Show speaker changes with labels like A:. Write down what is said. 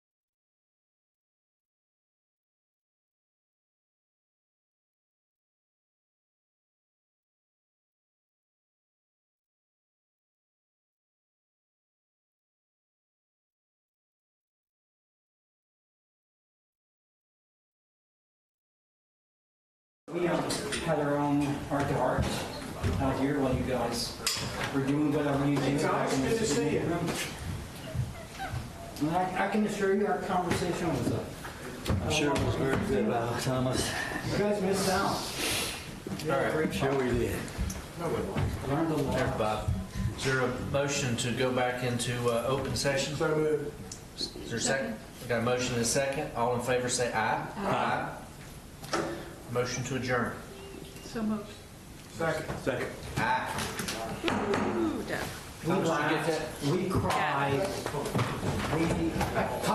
A: We um, had our own heart to heart out here while you guys were doing whatever you do. back in
B: Good to
A: this
B: see you.
A: room. And I, I can assure you our conversation was uh, a.
C: I'm sure it was very good, uh, Thomas.
A: You guys missed out. You had a great
C: Sure
A: time.
C: we did.
A: Learned a
D: There,
A: lot.
D: Bob. Is there a motion to go back into uh, open session?
B: So moved.
D: Is there a second? We got a motion and a second. All in favor, say aye. Aye. Motion to adjourn.
E: So moved.
B: Second. Second.
D: Aye.
E: Ooh, Doug.
A: We
D: Thomas, did you get
A: laughed, we cried, we